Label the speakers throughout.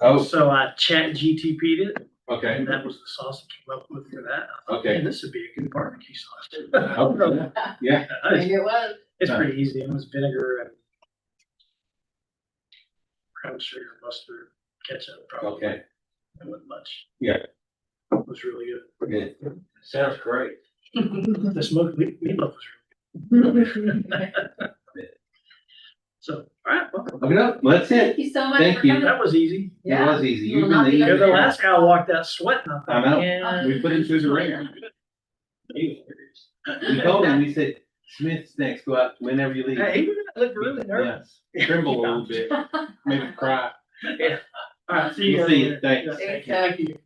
Speaker 1: Oh,
Speaker 2: So I chat GTP'd it,
Speaker 1: okay,
Speaker 2: and that was the sauce that came up with for that. I thought,
Speaker 1: okay.
Speaker 2: "Man, This would be a good barbecue sauce.
Speaker 1: Okay. Yeah,
Speaker 2: It's-
Speaker 3: Maybe it was.
Speaker 2: It's pretty easy, it was vinegar and brown sugar, mustard, ketchup, probably.
Speaker 1: okay,
Speaker 2: It wasn't much.
Speaker 1: Yeah.
Speaker 2: It was really good.
Speaker 1: good.
Speaker 4: Sounds great.
Speaker 2: The smoked meat, meatloaf was really good. So, all right, well,
Speaker 1: Okay, no, that's it.
Speaker 3: Thank you so much
Speaker 1: Thank
Speaker 3: for
Speaker 1: you.
Speaker 3: coming.
Speaker 2: that was easy.
Speaker 1: It
Speaker 3: Yeah.
Speaker 1: was easy.
Speaker 3: You
Speaker 1: You
Speaker 3: will not be
Speaker 1: really.
Speaker 2: You're
Speaker 3: under
Speaker 2: the last guy I walked out sweating. I
Speaker 1: I
Speaker 2: thought,
Speaker 1: know.
Speaker 2: "Man,
Speaker 1: We put it through the ringer. We told him, we said, Smith's next, go out whenever you leave.
Speaker 2: Hey, he looked really nervous.
Speaker 1: Tremble a little bit, maybe cry.
Speaker 2: All right, see you
Speaker 1: We'll
Speaker 2: guys
Speaker 1: see you.
Speaker 2: later.
Speaker 1: Thanks.
Speaker 2: Yeah, thank you.
Speaker 3: Thank you.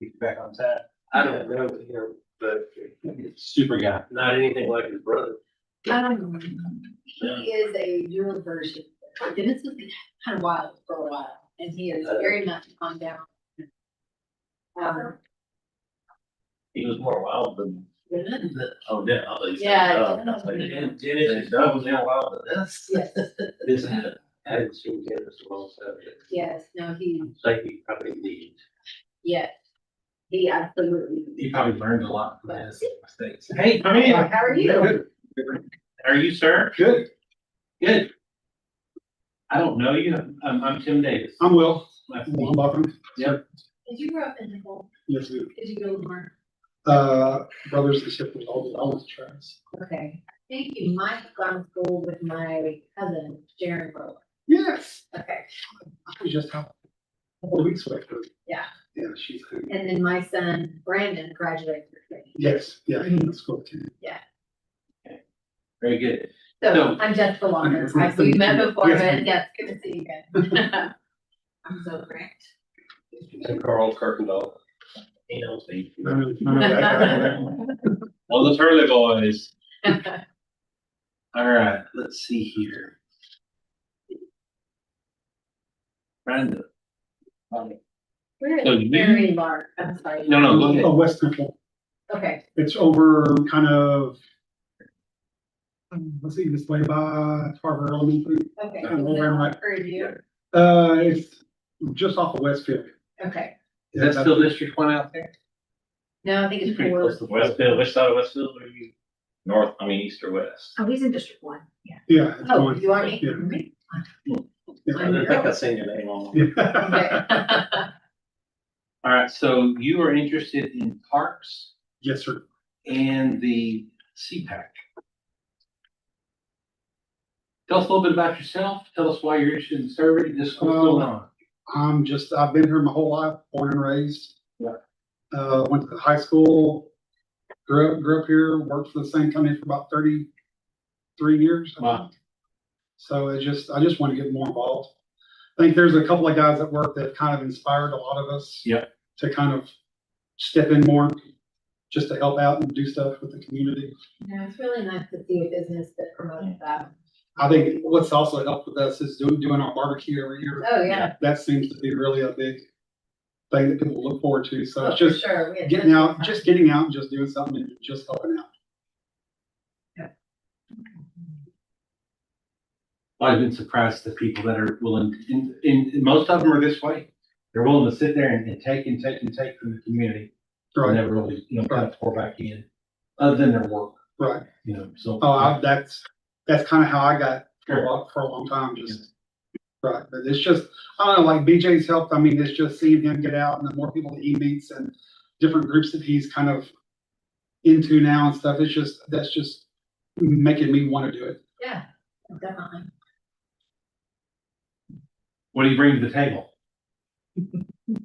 Speaker 1: Get Back on time.
Speaker 4: I don't know him, but
Speaker 1: Super guy.
Speaker 4: not anything like his brother.
Speaker 3: Um, He is a dual version. Dennis was kind of wild for a while, and he is very much calmed down. Um,
Speaker 4: He was more wild than.
Speaker 3: Dennis,
Speaker 4: Oh, yeah. I'll leave.
Speaker 3: Yeah.
Speaker 4: Oh, I was like, "Damn, Dennis, that was now wild than this.
Speaker 3: yes,
Speaker 4: This, I haven't seen Dennis in a long time.
Speaker 3: yes, no, he,
Speaker 4: It's like he probably needs.
Speaker 3: yes. He absolutely.
Speaker 4: He probably learned a lot from
Speaker 3: his
Speaker 4: mistakes. Hey, come in.
Speaker 3: How are you?
Speaker 4: Are you, sir?
Speaker 5: Good.
Speaker 4: Good. I don't know you. I'm, I'm Tim Davis.
Speaker 5: I'm Will.
Speaker 4: Nice to meet
Speaker 5: I'm
Speaker 4: you.
Speaker 5: Buckland.
Speaker 3: Did you grow up in Nicole?
Speaker 5: Yes, we-
Speaker 3: Did you go to Lamar?
Speaker 5: uh, brothers and sisters, all the, all the tribes.
Speaker 3: Okay. Thank you. Mike gone to school with my cousin, Sharon Rowe.
Speaker 5: Yes.
Speaker 3: Okay.
Speaker 5: We just have a couple of weeks left.
Speaker 3: Yeah.
Speaker 5: Yeah, she's, good.
Speaker 3: And then my son Brandon graduated with me.
Speaker 5: yes, yeah, that's cool too.
Speaker 4: Very good.
Speaker 3: So
Speaker 4: No.
Speaker 3: I'm Jessica Walker. I see you met before, but yes, good to see you again. I'm so great.
Speaker 4: And Carl Kirkendall. He knows me. Well, the Turley Boys. All right, let's see here. Brandon. No,
Speaker 3: We're
Speaker 4: So
Speaker 3: at
Speaker 4: you-
Speaker 3: very large, I'm sorry.
Speaker 4: no, go ahead.
Speaker 5: Oh, West Central.
Speaker 3: Okay,
Speaker 5: It's over kind of, um, let's see, this way by Tarver Elementary.
Speaker 3: okay.
Speaker 5: I don't know where my-
Speaker 3: Or you,
Speaker 5: Uh, it's just off of Westfield.
Speaker 3: okay.
Speaker 4: Is that
Speaker 5: Yeah,
Speaker 4: still District One out there?
Speaker 3: No, I think it's
Speaker 4: Pretty close
Speaker 3: four.
Speaker 4: to Westfield, which side of Westfield are you? North, I mean, east or west?
Speaker 3: Oh, he's in District One, yeah.
Speaker 5: Yeah. it's
Speaker 3: Oh,
Speaker 5: going-
Speaker 3: you are me?
Speaker 5: Yeah.
Speaker 4: I
Speaker 3: I'm
Speaker 4: think
Speaker 3: your-
Speaker 4: I've seen your name on.
Speaker 5: Yeah.
Speaker 3: Okay.
Speaker 4: All right, so you are interested in parks
Speaker 5: Yes, sir.
Speaker 4: and the CPAC. Tell us a little bit about yourself. Tell us why you're interested in serving this. what's going on.
Speaker 5: I'm just, I've been here my whole life, born and raised.
Speaker 4: Yeah.
Speaker 5: Uh, went to high school, grew up, grew up here, worked for the same company for about thirty-three years. I
Speaker 4: Wow.
Speaker 5: think. So it just, I just want to get more involved. I think there's a couple of guys at work that kind of inspired a lot of us.
Speaker 4: Yeah.
Speaker 5: To kind of step in more, just to help out and do stuff with the community.
Speaker 3: No, it's really nice to see a business that promotes that.
Speaker 5: I think what's also helped with us is doing, doing our barbecue every year.
Speaker 3: Oh, yeah.
Speaker 5: That seems to be really a big thing that people look forward to.
Speaker 3: Oh,
Speaker 5: So it's
Speaker 3: for
Speaker 5: just
Speaker 3: sure. We had
Speaker 5: getting
Speaker 3: tons of
Speaker 5: out,
Speaker 3: fun.
Speaker 5: just getting out and just doing something and just helping out.
Speaker 4: I've been surprised at the people that are willing, to- and, and most of them are this way. They're willing to sit there and, and take and take and take from the community. And
Speaker 5: Right,
Speaker 4: never really, you know, kind of pour back in, other than their work,
Speaker 5: right.
Speaker 4: you know, so.
Speaker 5: Oh, I, that's, that's kind of how I got for a long, for a long time, just. Right, but it's just, I don't know, like BJ's helped. I mean, it's just seeing him get out and the more people that he meets and different groups that he's kind of into now and stuff. It's just, that's just making me want to do it.
Speaker 3: Yeah, definitely.
Speaker 4: What do you bring to the table?
Speaker 5: I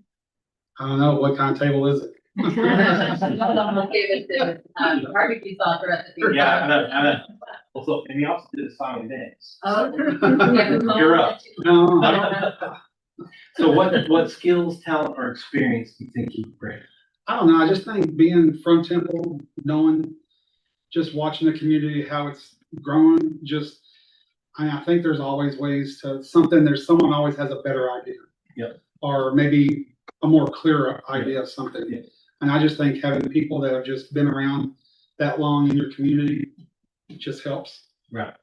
Speaker 5: don't know, what kind of table is it?
Speaker 3: Give it to, um, barbecue sauce recipe.
Speaker 4: Yeah, I know, I know. Also, and we also did a song and dance.
Speaker 3: Oh.
Speaker 5: No,
Speaker 4: You're up.
Speaker 5: no, no.
Speaker 4: So what, what skills, talent, or experience do you think you bring?
Speaker 5: I don't know, I just think being from Temple, knowing, just watching the community, how it's growing, just, I, I think there's always ways to, something, there's, someone always has a better idea.
Speaker 4: Yep.
Speaker 5: Or maybe a more clear idea of
Speaker 4: Yeah.
Speaker 5: something. And I just think having people that have just been around that long in your community just helps.
Speaker 4: Right.